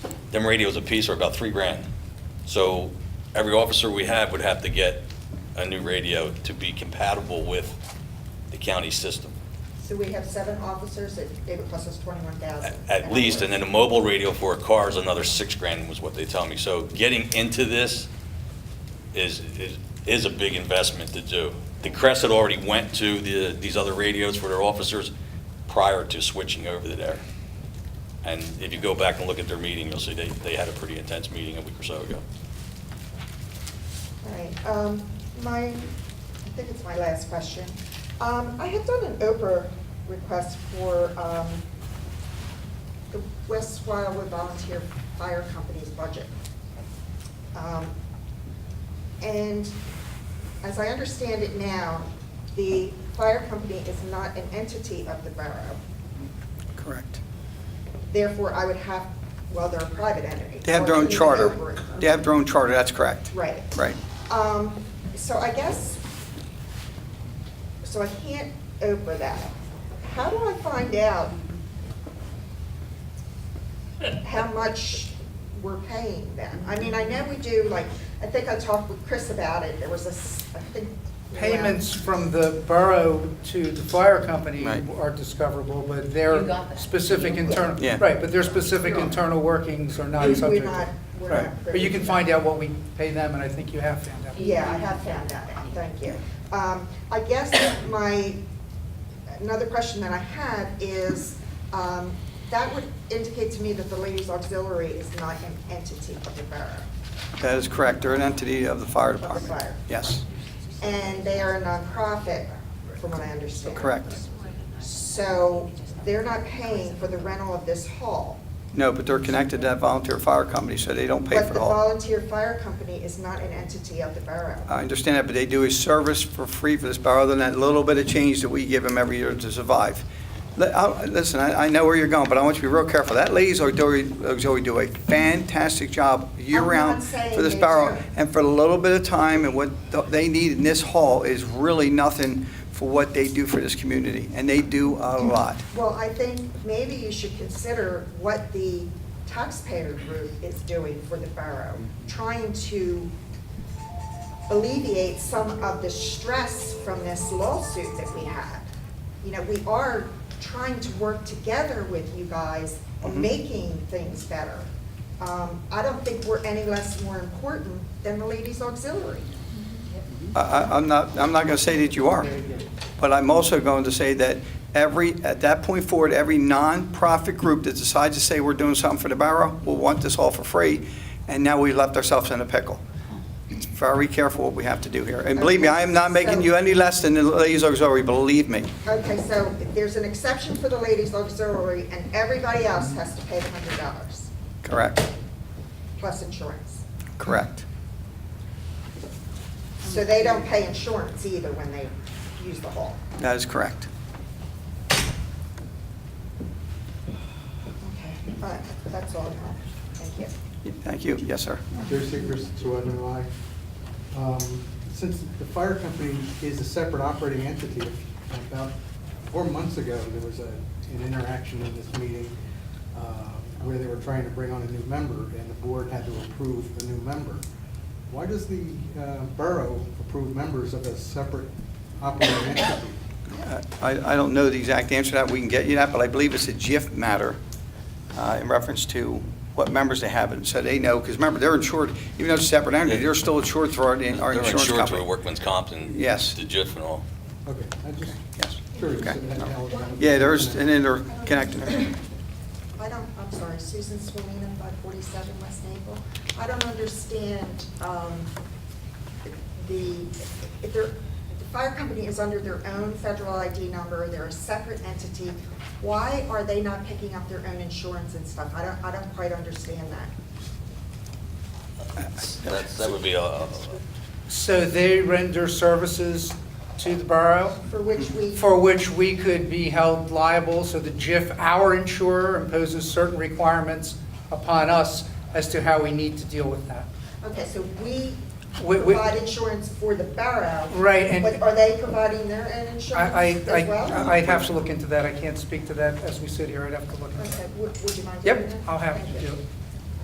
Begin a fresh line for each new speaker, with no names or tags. them radios apiece are about three grand. So every officer we have would have to get a new radio to be compatible with the county system,
So we have seven officers, it, it would cost us twenty-one
at
thousand.
at least. And then a mobile radio for a car is another six grand was what they tell me. So getting into this is, is, is a big investment to do. The Crest had already went to the, these other radios for their officers prior to switching over to there. And if you go back and look at their meeting, you'll see they, they had a pretty intense meeting a week or so ago.
All right, um, my, I think it's my last question. Um, I had done an Oprah request for, um, the West Wildwood Volunteer Fire Company's budget. Um, And as I understand it now, the fire company is not an entity of the borough.
Correct.
Therefore, I would have, well, they're a private entity.
They have
or
their own
even
charter.
over-
They have their own charter, that's correct.
Right.
Right.
Um, so I guess, so I can't open that. How do I find out how much we're paying them? I mean, I know we do, like, I think I talked with Chris about it, there was a, s- I think.
Payments from the borough to the fire company
Right.
are discoverable, but
You
their
got that.
specific internal,
Yeah.
right, but their specific internal workings are not
We're
subject.
not-
to
we're
right.
not
But you can
privy.
find out what we pay them, and I think you have found out.
Yeah, I have found that out, thank you. Um, I guess my, another question that I had is, um, that would indicate to me that the ladies auxiliary is not an entity of the borough.
That is correct. They're an entity of the fire
the
department.
fire.
Yes,
And they are a nonprofit, from what I understand.
correct.
So they're not paying for the rental of this hall.
No, but they're connected to that volunteer fire company, so they don't pay
But
for
the
it all.
volunteer fire company is not an entity of the borough.
I understand that, but they do a service for free for this borough, other than that little bit of change that we give them every year to survive. Li- I- Listen, I I know where you're going, but I want you to be real careful. That ladies auxiliary auxiliary uh, do a fantastic job year-round
saying
for this
they
borough.
don't.
And for a little bit of time, and what th- they need in this hall is really nothing for what they do for this community, and they do a lot.
Well, I think maybe you should consider what the taxpayer group is doing for the borough, trying to alleviate some of the stress from this lawsuit that we had. You know, we are trying to work together with you guys
Mhm.
on making things better. Um, I don't think we're any less more important than the ladies auxiliary.
I- I- I'm not, I'm not going to say that you are, but I'm also going to say that every, at that point forward, every nonprofit group that decides to say we're doing something for the borough will want this all for free, and now we left ourselves in a pickle. It's Very careful what we have to do here. And believe me, I am not making you any less than the ladies auxiliary, believe me.
Okay, so there's an exception for the ladies auxiliary and everybody else has to pay the hundred dollars.
Correct,
plus insurance.
correct.
So they don't pay insurance either when they use the hall.
That is correct.
Okay. All right, that's all I have. Thank you.
Thank you. Yes, sir.
There's secrets to underlie. Um, Since the fire company is a separate operating entity, about four months ago, there was a, an interaction in this meeting uh, where they were trying to bring on a new member, and the board had to approve a new member. Why does the uh, borough approve members of a separate operating entity?
Uh, I I don't know the exact answer to that. We can get you that, but I believe it's a GIF matter uh, in reference to what members they have. And so they know, because remember, they're insured, even though it's a separate entity, they're still insured through our our
They're
insurance
insured through
company.
workman's comp and
Yes.
the JIF and all.
Okay, I just
Yes.
curious.
Okay.
how it happened.
Yeah, there's, and then they're connected.
I don't, I'm sorry, Susan Swalina, 547 West Naple. I don't understand um, the, if they're, the fire company is under their own federal ID number, they're a separate entity. Why are they not picking up their own insurance and stuff? I don't, I don't quite understand that.
That's, that would be a, a-
So they render services to the borough
For which we.
for which we could be held liable, so the JIF, our insurer, imposes certain requirements upon us as to how we need to deal with that.
Okay, so we
We- we-
provide insurance for the borough.
Right, and-
But are they providing their own
I,
insurance
I,
as well?
I- I'd have to look into that, I can't speak to that as we sit here, I'd have to look into
Okay,
that.
would, would you mind doing
Yep,
that?
I'll have to
Thank
do
you.
it.